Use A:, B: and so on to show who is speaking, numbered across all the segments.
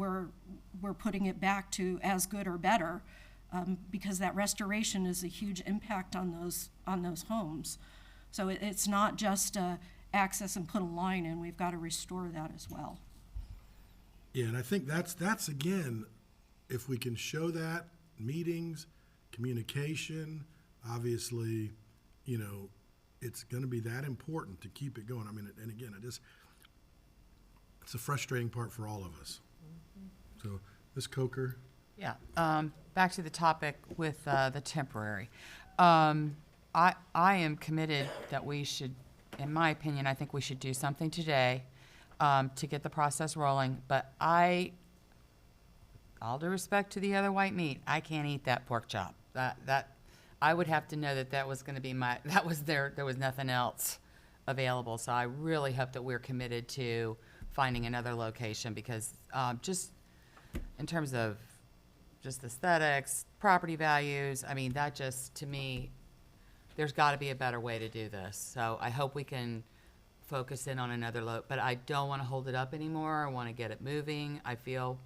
A: we're, we're putting it back to as good or better, um, because that restoration is a huge impact on those, on those homes. So it, it's not just, uh, access and put a line in, we've got to restore that as well.
B: Yeah, and I think that's, that's again, if we can show that, meetings, communication, obviously, you know, it's gonna be that important to keep it going. I mean, and again, I just, it's a frustrating part for all of us. So, Ms. Coker,
C: Yeah, um, back to the topic with, uh, the temporary. Um, I, I am committed that we should, in my opinion, I think we should do something today, um, to get the process rolling, but I, all due respect to the other white meat, I can't eat that pork chop. That, that, I would have to know that that was gonna be my, that was there, there was nothing else available. So I really hope that we're committed to finding another location because, um, just in terms of just aesthetics, property values, I mean, that just, to me, there's gotta be a better way to do this. So I hope we can focus in on another lo, but I don't wanna hold it up anymore. I wanna get it moving. I feel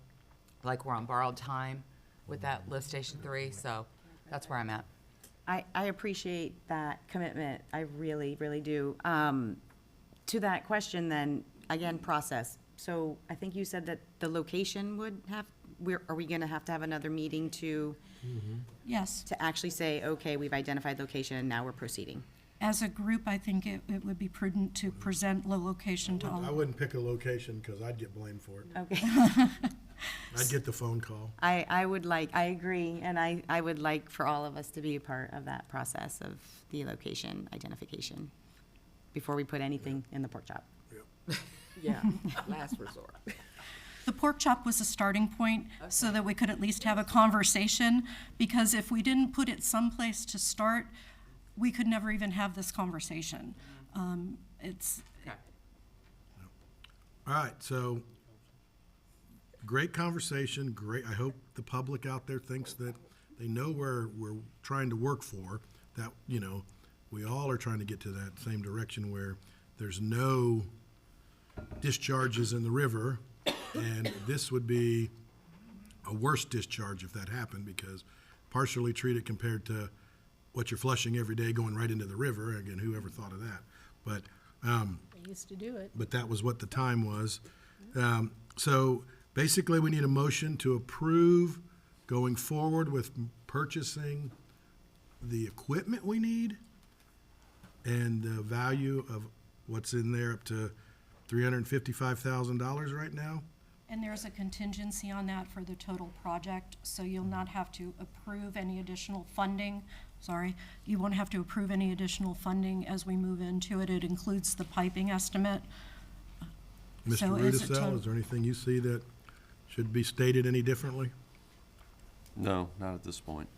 C: like we're on borrowed time with that lift station three, so that's where I'm at.
D: I, I appreciate that commitment. I really, really do. Um, to that question then, again, process. So I think you said that the location would have, we're, are we gonna have to have another meeting to,
A: Yes,
D: to actually say, okay, we've identified location and now we're proceeding?
A: as a group, I think it, it would be prudent to present low location to
B: I
A: all.
B: wouldn't pick a location, cause I'd get blamed for it.
D: Okay.
B: I'd get the phone call.
D: I, I would like, I agree, and I, I would like for all of us to be a part of that process of the location identification before we put anything in the pork chop.
E: Yeah, last resort.
A: The pork chop was a starting point, so that we could at least have a conversation, because if we didn't put it someplace to start, we could never even have this conversation. Um, It's,
B: All right, so, great conversation, great, I hope the public out there thinks that they know where we're trying to work for, that, you know, we all are trying to get to that same direction where there's no discharges in the river, and this would be a worse discharge if that happened, because partially treated compared to what you're flushing every day going right into the river, again, whoever thought of that? But, um,
E: Used to do it.
B: but that was what the time was. Um, So basically, we need a motion to approve going forward with purchasing the equipment we need and the value of what's in there up to $355,000 right now.
A: and there's a contingency on that for the total project, so you'll not have to approve any additional funding. Sorry, you won't have to approve any additional funding as we move into it. It includes the piping estimate.
B: Mr.
A: So is it
B: Rudisell,
A: to-
B: is there anything you see that should be stated any differently?
F: No, not at this point.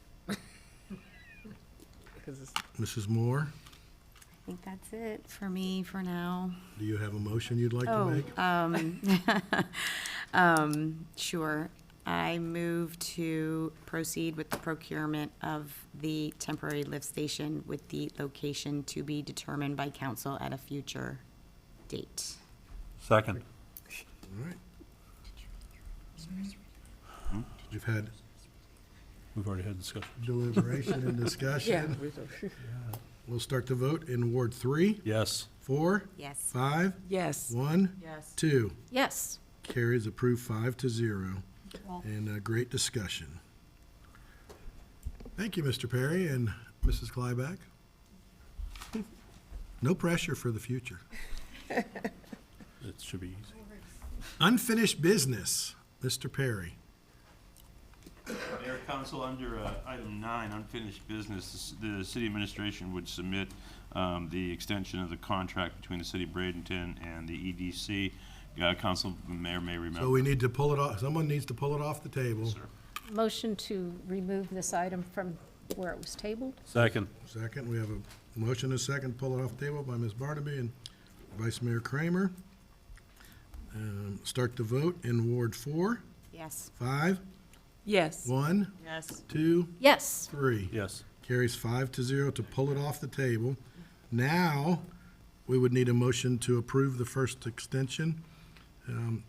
E: Because it's
B: Mrs. Moore,
D: I think that's it for me for now.
B: do you have a motion you'd like to
D: Oh,
B: make?
A: uh,
D: um, um, sure. I move to proceed with the procurement of the temporary lift station with the location to be determined by council at a future date.
G: Second.
B: All right. You've had
G: We've already had discussion.
B: deliberation and discussion. We'll start the vote in Ward three,
G: Yes.
B: four,
D: Yes.
B: five,
E: Yes.
B: one,
C: Yes.
B: two.
E: Yes.
B: Carries approved five to zero.
A: Well-
B: And a great discussion. Thank you, Mr. Perry and Mrs. Clyback. No pressure for the future.
G: It should be easy.
B: Unfinished business, Mr. Perry.
H: Mayor, council, under uh, item nine, unfinished business, the s- the city administration would submit um, the extension of the contract between the city of Bradenton and the EDC. Uh, Council, mayor may remember.
B: So we need to pull it off, someone needs to pull it off the table.
H: sir.
E: Motion to remove this item from where it was tabled?
G: Second.
B: Second, we have a motion and a second, pull it off the table by Ms. Barnaby and Vice Mayor Kramer. Um, Start the vote in Ward four,
D: Yes.
B: five,
E: Yes.
B: one,
D: Yes.
B: two,
E: Yes.
B: three.
G: Yes.
B: Carries five to zero to pull it off the table. Now, we would need a motion to approve the first extension. Um,